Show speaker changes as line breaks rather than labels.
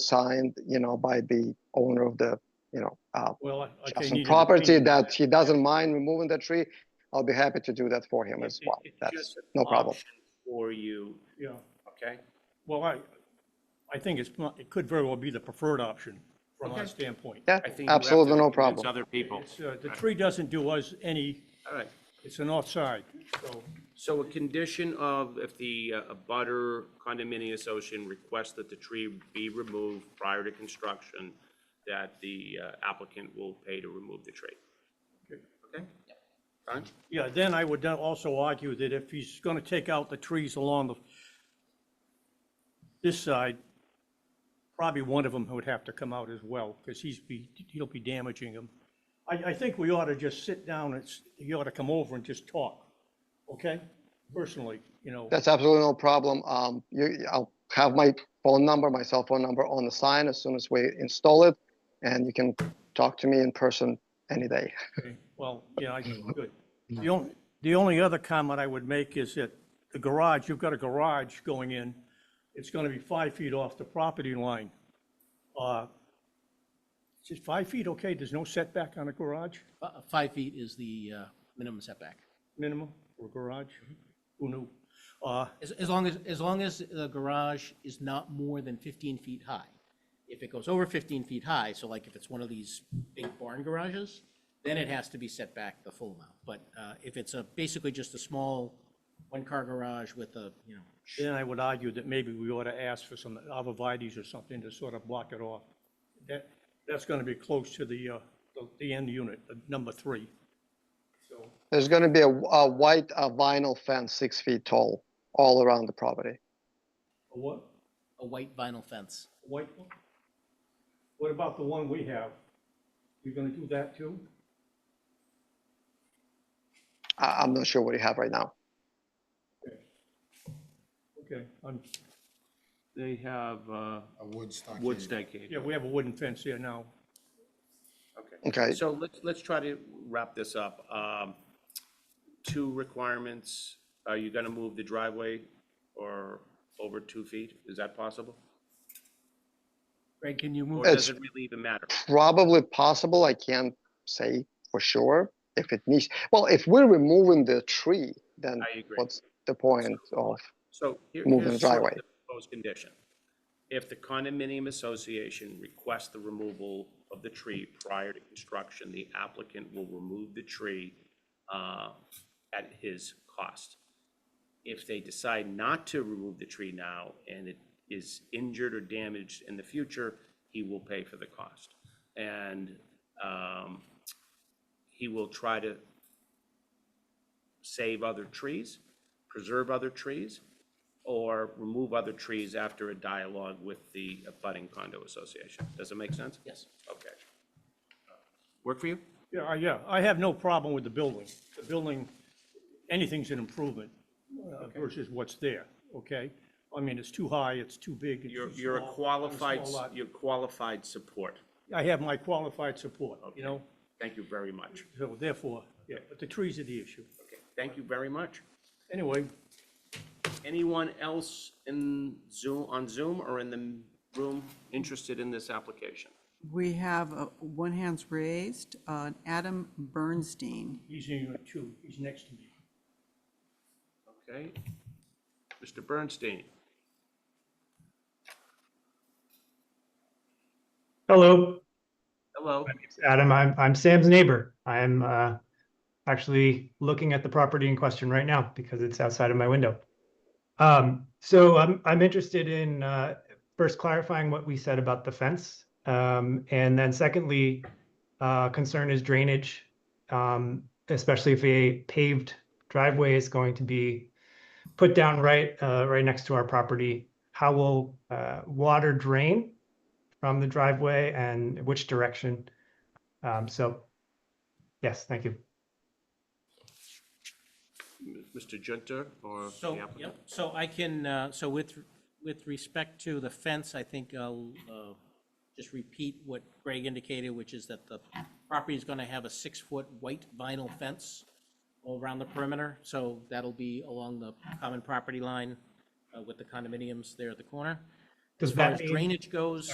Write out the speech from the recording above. signed, you know, by the owner of the, you know, uh,
Well, I- okay.
adjacent
needed a
property
opinion.
that he doesn't mind removing the tree, I'll be happy to do that for him as
It-
well.
it's
That's
just uh, an
no problem.
option For you,
Yeah,
okay?
well, I, I think it's, not- it could very well be the preferred option from our
Okay.
standpoint.
Yeah,
I think you have
absolutely
to
no
convince
problem.
Other people.
It's, uh, The tree doesn't do us any,
All right.
it's an offside, so,
So a condition of if the uh, abutter condominium association requests that the tree be removed prior to construction, that the uh, applicant will pay to remove the tree.
Okay.
Okay? Fine?
yeah, then I would also argue that if he's gonna take out the trees along the, this side, probably one of them would have to come out as well, because he's be, he'll be damaging them. I, I think we ought to just sit down and, s- he ought to come over and just talk, okay? Personally, you know.
That's absolutely no problem. Um, you, I'll have my phone number, my cell phone number on the sign as soon as we install it. And you can talk to me in person any day.
Okay, Well, yeah, I, good. The only, the only other comment I would make is that the garage, you've got a garage going in. It's gonna be five feet off the property line. Uh, Is it five feet okay? There's no setback on a garage,
Fi- Five feet is the uh, minimum setback.
minimum for a garage? Who knew? Uh,
As, as long as, as long as the garage is not more than 15 feet high. If it goes over 15 feet high, so like if it's one of these big barn garages, then it has to be set back the full amount. But uh, if it's a, basically just a small one-car garage with a, you know,
Then I would argue that maybe we ought to ask for some arborvitae's or something to sort of block it off. That, that's gonna be close to the, uh, the- the end unit, uh, number three. So,
There's going to be a, a white uh, vinyl fence, six feet tall, all around the property.
a what?
a white vinyl fence.
White one? What about the one we have? You're gonna do that too?
I, I'm not sure what you have right now.
Okay, I'm,
They have uh,
a wood stockade.
wood stackade.
yeah, we have a wooden fence here now.
Okay.
Okay.
So let's, let's try to wrap this up. Um, Two requirements. Are you going to move the driveway or over two feet? Is that possible?
Greg, can you
Or
move?
does it really even matter?
probably possible. I can't say for sure if it needs. Well, if we're removing the tree, then
I agree.
what's the point of?
So here-
Move the
here's sort of
driveway.
the proposed condition. If the condominium association requests the removal of the tree prior to construction, the applicant will remove the tree uh, at his cost. If they decide not to remove the tree now and it is injured or damaged in the future, he will pay for the cost. And um, he will try to save other trees, preserve other trees, or remove other trees after a dialogue with the abutting condo association. Does it make sense?
Yes.
Okay. Work for you?
Yeah, I- yeah, I have no problem with the building. The building, anything's an improvement uh, versus what's there, okay? I mean, it's too high, it's too big. it's
You're,
too
you're a
small, on
qualified,
small lot.
you're qualified support.
I have my qualified support, you know,
Thank you very much.
so therefore, yeah, but the trees are the issue.
Okay, Thank you very much.
Anyway,
Anyone else in Zoom, on Zoom or in the room interested in this application?
We have uh, one hand's raised, uh, Adam Bernstein.
he's in unit two, he's next to me.
Okay. Mr. Bernstein?
Hello,
Hello?
it's Adam. I'm, I'm Sam's neighbor. I'm uh, actually looking at the property in question right now because it's outside of my window. Um, so I'm, I'm interested in uh, first clarifying what we said about the fence. Um, and then secondly, uh, concern is drainage, um, especially if a paved driveway is going to be put down right, uh, right next to our property. How will uh, water drain? from the driveway and which direction. Um, so, yes, thank you.
Mr. Junter or the
So,
applicant?
yep, so I can, uh, so with, with respect to the fence, I think I'll uh, just repeat what Greg indicated, which is that the property is going to have a six-foot white vinyl fence all around the perimeter, so that'll be along the common property line uh, with the condominiums there at the corner.
Does
As far
that
as
mean-
drainage goes.